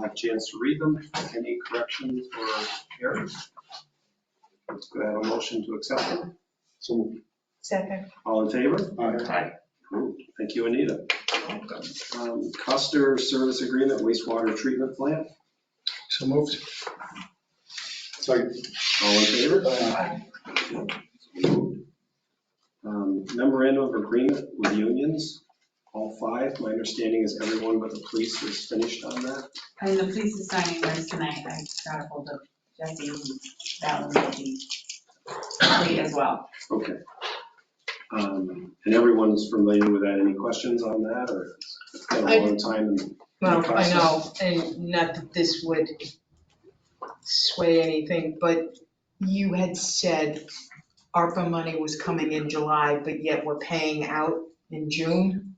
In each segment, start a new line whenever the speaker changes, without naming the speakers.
a chance to read them. Any corrections or errors? Could I have a motion to accept them?
So moved.
Second.
All in favor?
Aye.
Approved. Thank you, Anita. Um, Custer Service Agreement Wastewater Treatment Plant,
So moved. Second.
all in favor?
Aye.
Approved. Um, Memorandum of Agreement with unions, all five. My understanding is everyone but the police is finished on that.
And the police is signing theirs tonight, I got ahold of Jesse, and that one will be complete as well.
Okay. Um, And everyone's familiar with that. Any questions on that or it's been a long time and
Well, I know, and not that this would sway anything, but you had said ARPA money was coming in July, but yet we're paying out in June?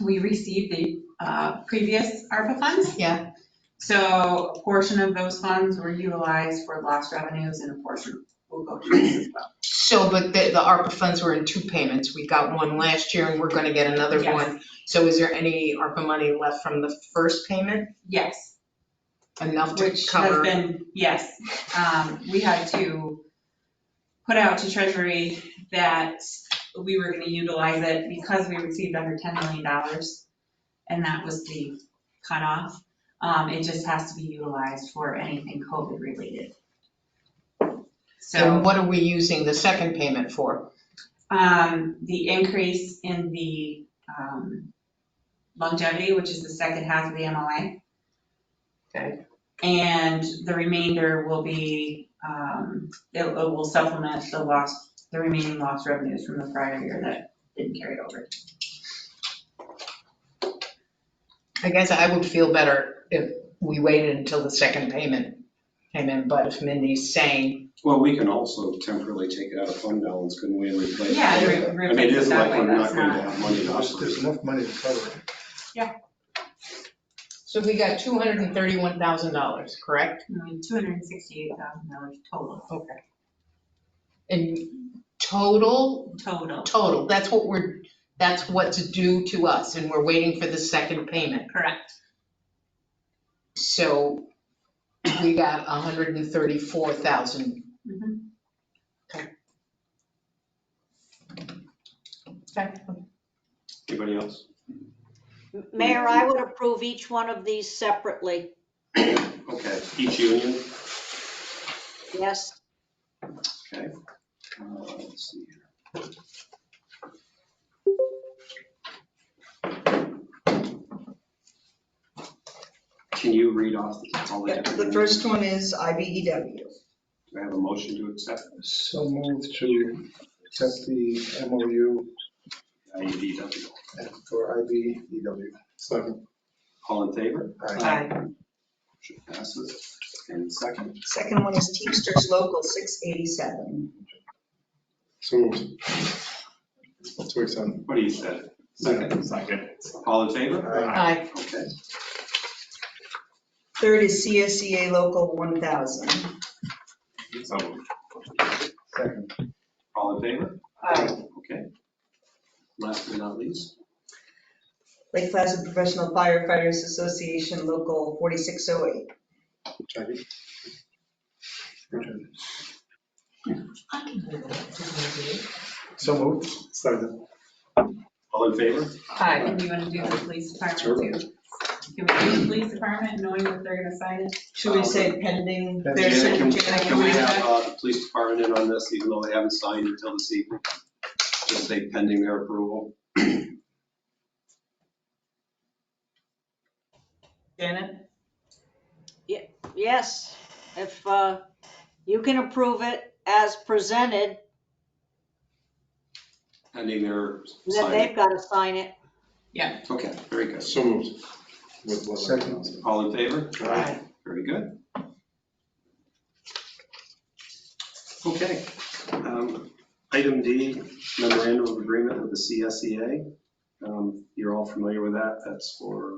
We received the uh, previous ARPA funds,
Yeah.
so a portion of those funds were utilized for lost revenues and a portion will go to this as well.
So, but the, the ARPA funds were in two payments. We got one last year and we're gonna get another
Yes.
one. So is there any ARPA money left from the first payment,
Yes,
enough to
which has
cover?
been, yes, um, we had to put out to Treasury that we were gonna utilize it because we received under ten million dollars. And that was the cutoff. Um, it just has to be utilized for anything COVID related.
And
So,
what are we using the second payment for?
um, the increase in the, um, longevity, which is the second half of the MLA.
Okay.
And the remainder will be, um, it it will supplement the lost, the remaining lost revenues from the prior year that didn't carry over.
I guess I would feel better if we waited until the second payment came in, but if Mindy's saying,
Well, we can also temporarily take it out of fund balance, couldn't we, and replace it?
Yeah,
re-
it
I mean, it
replaces
is
that
like
way,
we're
that's
not going to
not.
have money to
There's
operate.
there's enough money to cover it.
so we got two hundred and thirty-one thousand dollars, correct?
Two hundred and sixty-eight thousand dollars total,
Okay. In total,
total,
total, that's what we're, that's what's due to us, and we're waiting for the second payment.
correct.
So we got a hundred and thirty-four thousand.
Mhm.
Anybody else?
Mayor, I would approve each one of these separately.
Okay, each union,
Yes,
okay. Uh, let's see here. Can you read off all the
Yeah,
different?
The
unions?
first one is E IBEW.
Do I have a motion to accept
So moved to accept the MOU
IUDW?
for E IBEW. Second.
All in favor?
Aye.
Aye.
Motion passes. And second,
Second one is Teamsters Local 687.
So moved. So accept.
what do you say? Second. Second. All in favor?
Aye.
Okay.
Third is CSEA Local 1000.
Second.
All in favor?
Aye.
Okay. Last but not least,
Lake Placid Professional Firefighters Association Local 4608.
Jackie? Your turn. So moved. Second.
all in favor?
Aye.
And you want to do the police
Sure.
department too? Can we do the police department knowing that they're gonna sign it?
Should we say pending?
Pending.
their
Janet, Um, can,
signature?
can we have uh, the police department in on this, even though they haven't signed until this evening? Just say pending their approval.
Janet?
yes. If uh, you can approve it as presented,
Pending their
then
signing.
they've got to sign it.
Okay, very good.
So moved. With what?
Second. All in favor?
Aye.
Very good. Okay. um, Item D, memorandum of agreement with the CSEA. Um, You're all familiar with that. That's for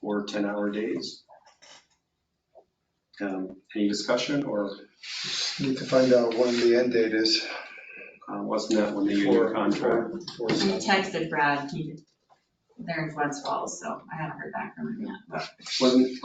four 10-hour days. Um, Any discussion or
Need to find out when the end date is.
uh, wasn't that when the
for
union contract?
for-
We
for-
texted Brad, he, they're in Flens Falls, so I haven't heard back from him yet, but.
Wasn't,